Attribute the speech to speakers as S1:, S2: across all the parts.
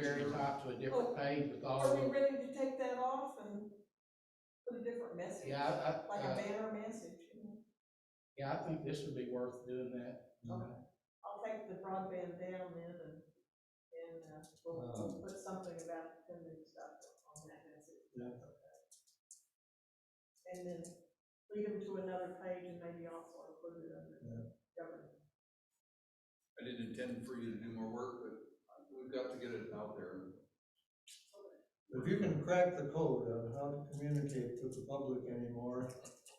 S1: very top to a different page with all
S2: Are Oh, we
S1: the,
S2: ready to take that off and put a different message?
S1: yeah, I, I,
S2: Like a
S1: uh,
S2: banner message, you know?
S1: yeah, I think this would be worth doing that.
S3: Um,
S2: Okay. I'll take the broadband down then and, and, uh, we'll, we'll put something about the new stuff on that message.
S1: Yeah.
S2: And then lead them to another page and maybe also include it under government.
S3: I didn't intend for you to do more work, but we've got to get it out there.
S4: If you can crack the code on how to communicate to the public anymore,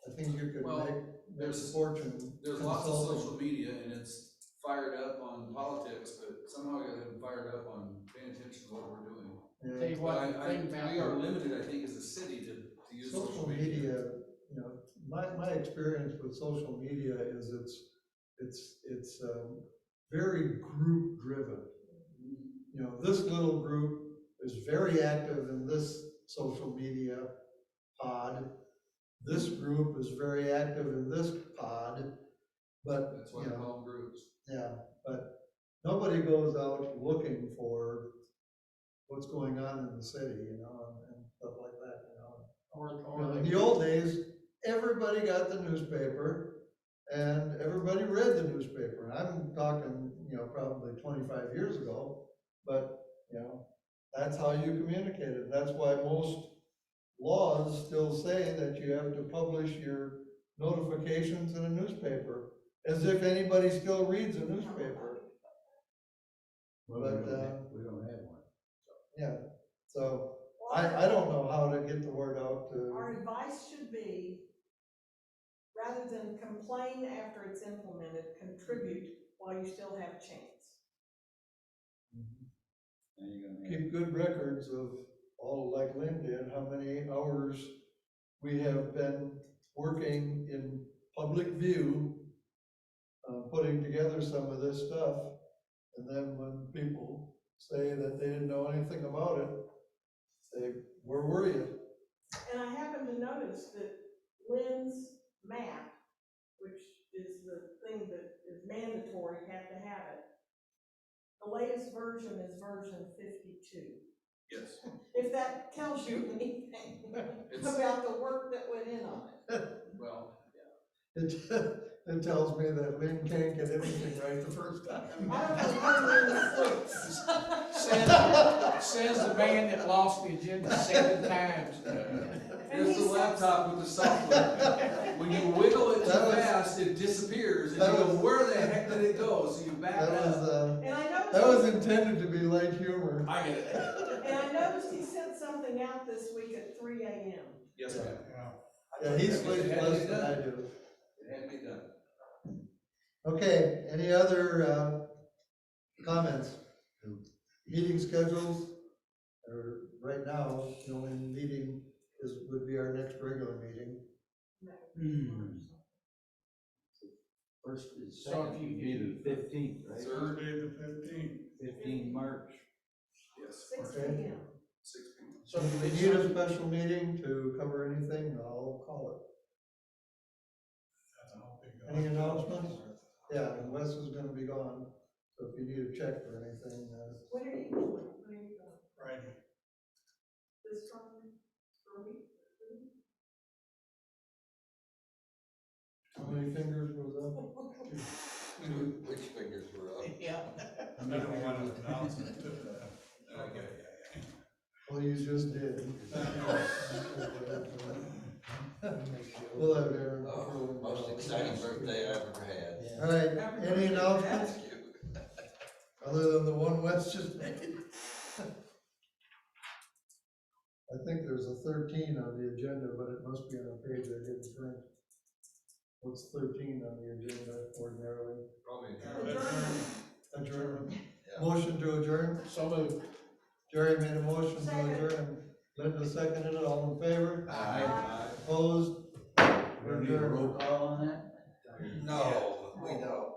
S4: I think you could
S3: Well,
S4: make, make
S3: there's-
S4: a fortune.
S3: There's lots of
S4: consulting.
S3: social media and it's fired up on politics, but somehow it got fired up on paying attention to what we're doing.
S1: Tell
S4: Yeah.
S1: you
S3: But
S1: what,
S3: I,
S1: the
S3: I,
S1: thing about.
S3: we are limited, I think, as a city to, to use
S4: Social media, you know, my, my experience with social media is it's, it's, it's, um, very group driven. You know, this little group is very active in this social media pod. This group is very active in this pod, but
S3: That's why I
S4: Yeah.
S3: call them groups.
S4: Yeah, but nobody goes out looking for what's going on in the city, you know, and, and stuff like that, you know.
S1: Or, or
S4: In
S1: they,
S4: the old days, everybody got the newspaper and everybody read the newspaper. I'm talking, you know, probably twenty-five years ago, but, you know, that's how you communicated. That's why most laws still say that you have to publish your notifications in a newspaper, as if anybody still reads a newspaper.
S5: Well,
S4: But,
S5: we don't
S4: uh,
S5: have, we don't have one.
S4: Yeah, so I, I don't know how to get the word out
S2: Our
S4: to,
S2: advice should be, rather than complain after it's implemented, contribute while you still have a chance.
S4: Mm-hmm.
S5: Now you're gonna have-
S4: keep good records of all, like Lynn did, how many hours we have been working in public view, uh, putting together some of this stuff. And then when people say that they didn't know anything about it, say, where were you?
S2: And I happened to notice that Lynn's map, which is the thing that is mandatory, you have to have it. The latest version is version fifty-two.
S3: Yes.
S2: If that tells you anything
S3: It's,
S2: about the work that went in on it.
S3: well,
S4: It, it tells me that Lynn can't get everything right the first time.
S2: I don't know when Lynn sleeps.
S1: says, says the man that lost the agenda seven times.
S2: And
S3: here's
S2: he
S3: the laptop with the software. When you wiggle it too
S4: That was-
S3: fast, it disappears and you
S4: that
S3: go,
S4: was-
S3: where the heck did it go? So you back
S4: That
S3: it
S4: was,
S3: up.
S4: uh,
S2: And I
S4: That was
S2: noticed,
S4: intended to be light humor.
S3: I get it.
S2: and I noticed he sent something out this week at three AM.
S3: Yes, ma'am.
S4: Yeah, he sleeps less than I do.
S3: It had to be done.
S4: Okay, any other, uh, comments? Meeting schedules, or right now, the only meeting is, would be our next regular meeting.
S1: Hmm.
S5: First, it's
S1: So if
S5: second,
S1: you-
S5: it'd be the fifteenth, right?
S3: Thursday
S5: the fifteenth. Fifteen March.
S3: Yes,
S2: Six
S4: Okay.
S2: PM.
S3: six P M.
S1: So
S4: If
S1: do
S4: we
S1: we,
S4: need a special meeting to cover anything, I'll call it. Any announcements? Yeah, and Wes is gonna be gone, so if you need a check for anything, uh,
S2: What are you doing? What are you doing? This Friday, for me?
S4: how many fingers was up?
S3: Which fingers were up?
S1: yeah,
S6: I don't want to announce it.
S3: Okay.
S4: Well, you just did. We'll have Aaron.
S3: Uh,
S7: Oh, most exciting birthday I ever had.
S4: All right, any announcements
S7: Thank you.
S4: other than the one Wes just made? I think there's a thirteen on the agenda, but it must be on a page I didn't print. What's thirteen on the agenda ordinarily?
S3: Probably.
S4: Adjournment.
S7: Yeah.
S4: Motion to adjourn?
S1: so moved.
S4: Jerry made a motion to
S2: Second.
S4: adjourn. Linda seconded it, all in favor?
S2: Aye.
S4: Opposed?
S5: We're gonna need a roll call on that?
S7: No, we don't.